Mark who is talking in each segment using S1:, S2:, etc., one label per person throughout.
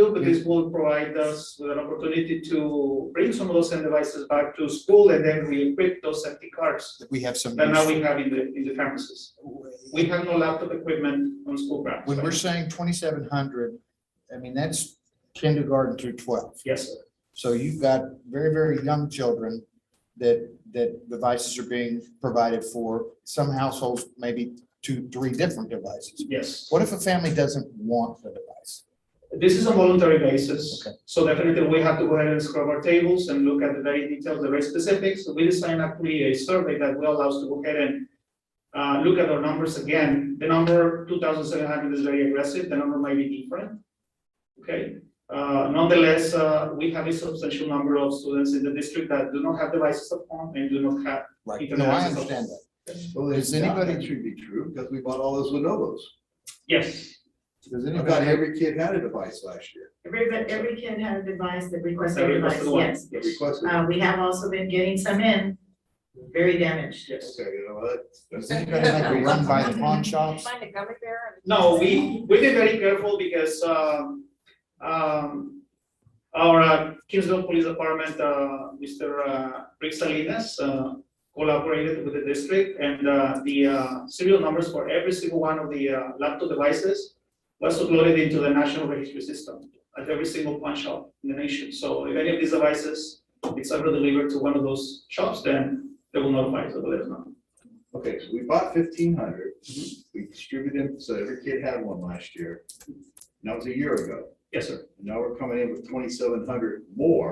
S1: do, but this will provide us with an opportunity to bring some of those end devices back to school and then we equip those empty cars
S2: that we have some.
S1: that now
S2: use-
S1: we have in the, in the campuses. We have no laptop equipment on school grounds.
S2: When we're saying twenty-seven hundred, I mean, that's kindergarten through twelve.
S1: Yes, sir.
S2: So you've got very, very young children that, that devices are being provided for. Some households, maybe two, three different devices.
S1: yes.
S2: What if a family doesn't want the device?
S1: This is a voluntary basis,
S2: Okay.
S1: so definitely we have to go ahead and scrub our tables and look at the very details, the very specifics. So We designed actually a survey that will allow us to go ahead and uh, look at our numbers again. The number two thousand seven hundred is very aggressive, the number might be different. Okay, Uh, nonetheless, uh, we have a substantial number of students in the district that do not have devices at home and do not have.
S2: Right,
S1: Even
S2: no, I
S1: as a-
S2: understand that.
S3: Well,
S2: Does
S3: it's not,
S2: anybody-
S3: that should be true, because we bought all those Lenovo's.
S1: Yes,
S2: Does
S3: About
S2: anybody,
S3: every kid had a device last year,
S4: Every, but every kid had a device that requests
S1: That
S4: a
S1: requests
S4: device,
S1: the one.
S4: yes.
S3: they requested.
S4: Uh, we have also been getting some in, very damaged.
S1: yes.
S3: Okay, you know what?
S2: does anybody like to run by the pawn shops?
S5: Find a gummy bear and.
S1: No, we, we've been very careful because, um, um, our uh, Kingsville Police Department, uh, Mr. uh, Rick Salinas, uh, collaborated with the district and, uh, the, uh, serial numbers for every single one of the, uh, laptop devices was uploaded into the national registry system at every single pawn shop in the nation. So if any of these devices, it's ever delivered to one of those shops, then they will notify us of it, no?
S3: Okay, so we bought fifteen hundred, we distributed them, so every kid had one last year. And That was a year ago,
S1: Yes, sir.
S3: now we're coming in with twenty-seven hundred more,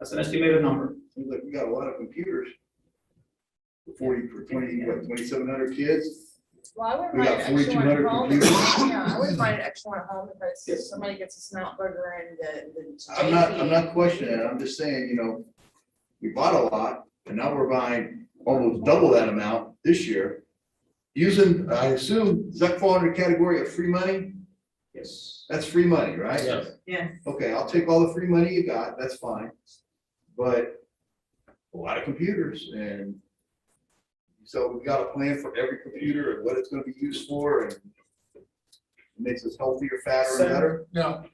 S1: That's an estimated number.
S3: seems like we got a lot of computers. Forty, for twenty, what, twenty-seven hundred kids?
S5: Well, I wouldn't
S3: We
S5: mind
S3: got
S5: an extra one
S3: 4,200
S5: at home.
S3: computers.
S5: Yeah, I wouldn't mind an extra one at home if
S1: Yes.
S5: it's, somebody gets a snout burger and the, the.
S3: I'm not, I'm
S5: JP.
S3: not questioning it, I'm just saying, you know, we bought a lot, and now we're buying almost double that amount this year. Using, I assume, does that fall under the category of free money?
S1: Yes.
S3: That's free money, right?
S1: Yes.
S4: Yes,
S3: Okay, I'll take all the free money you got, that's fine, but a lot of computers and so we've got a plan for every computer and what it's gonna be used for and makes us healthier, fatter, and better.
S1: No.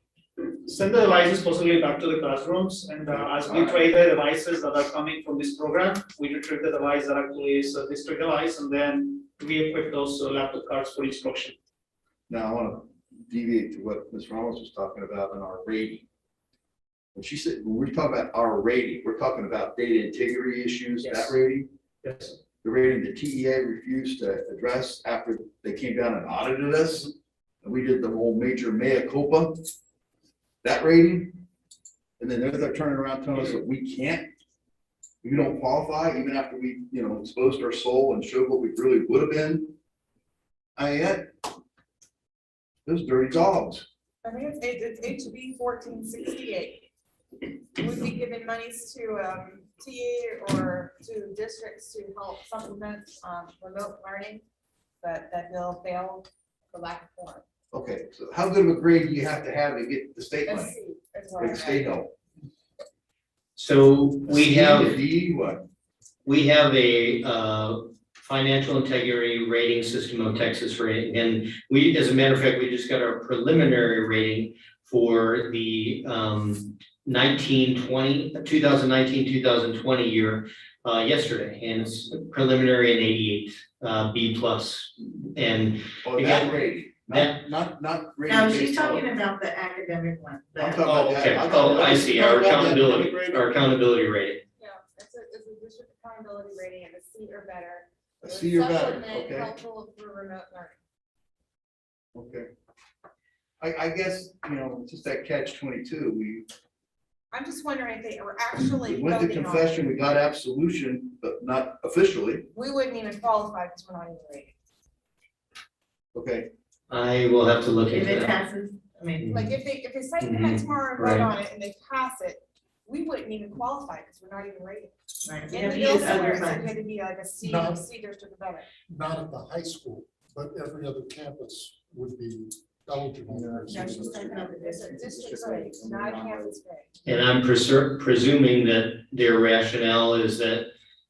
S1: Send the devices possibly back to the classrooms and uh, as we trade the devices that are coming from this program, we retrieve the device that actually is a district device and then we equip those uh, laptop cards for instruction.
S3: Now, I wanna deviate to what Ms. Ramos was talking about in our rating. When she said, when we're talking about our rating, we're talking about data integrity issues, that
S1: Yes.
S3: rating.
S1: Yes.
S3: the rating the TEA refused to address after they came down and audited us. And we did the whole major mea culpa, that rating. And then they're, they're turning around telling us that we can't, we don't qualify even after we, you know, exposed our soul and showed what we really would have been. I mean, that- those dirty dogs.
S6: I think it's H, it's HB fourteen sixty-eight. Would be giving monies to, um, TA or to districts to help supplement, um, remote learning, but that bill failed for lack of form.
S3: Okay, so how good of a grade do you have to have to get the state
S6: Let's
S3: money?
S6: see, that's what I
S3: Or the state
S6: read.
S3: help?
S7: So we
S3: C, a
S7: have,
S3: D, what?
S7: we have a uh, financial integrity rating system of Texas rating. And we, as a matter of fact, we just got our preliminary rating for the um, 1920 2019-2020 year uh, yesterday. And it's preliminary in eighty-eight, uh, B plus. And
S3: Oh, that
S7: Again,
S3: rating, not,
S7: that-
S3: not, not. rating
S4: no, she's
S3: based on-
S4: talking about the academic one,
S3: I'm
S4: the,
S3: talking about
S7: Oh,
S3: that.
S7: okay.
S3: I'm talking
S7: Oh, I
S3: about-
S7: see. Our
S3: I'm talking about that
S7: accountability.
S3: integrated-
S7: our accountability rating,
S6: Yeah, it's a, it's a district accountability rating and a C or better.
S3: A
S6: with
S3: C or better,
S6: supplement
S3: okay.
S6: Helpful for remote learning.
S3: Okay. I, I guess, you know, it's just that catch twenty-two, we,
S6: I'm just wondering if they were
S3: we
S6: actually
S3: went to
S6: voting on it.
S3: confession, we got absolution, but not officially,
S6: We wouldn't even qualify because we're not even rated.
S3: okay?
S7: I will have to look
S4: if
S7: into
S4: it
S7: that. Mm-hmm.
S4: passes, I mean,
S6: Like if they, if they cite the next tomorrow and
S7: Right.
S6: vote on it and they pass it, we wouldn't even qualify because we're not even rated.
S4: right, we
S6: And
S4: have
S6: the
S4: to
S6: bill
S4: use
S6: somewhere,
S4: other
S6: it said
S4: funds.
S6: we had to be like a C,
S8: No.
S6: C district about it.
S8: not at the high school, but every other campus would be eligible.
S6: No, she's talking about the district, district grade, not a campus grade.
S7: And I'm preser- presuming that their rationale is that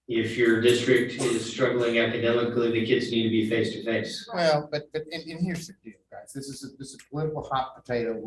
S7: if your district is struggling academically, the kids need to be face to face.
S2: Well, but, but, and, and here's the deal, guys. Democrats. This is, a- this is political hot potato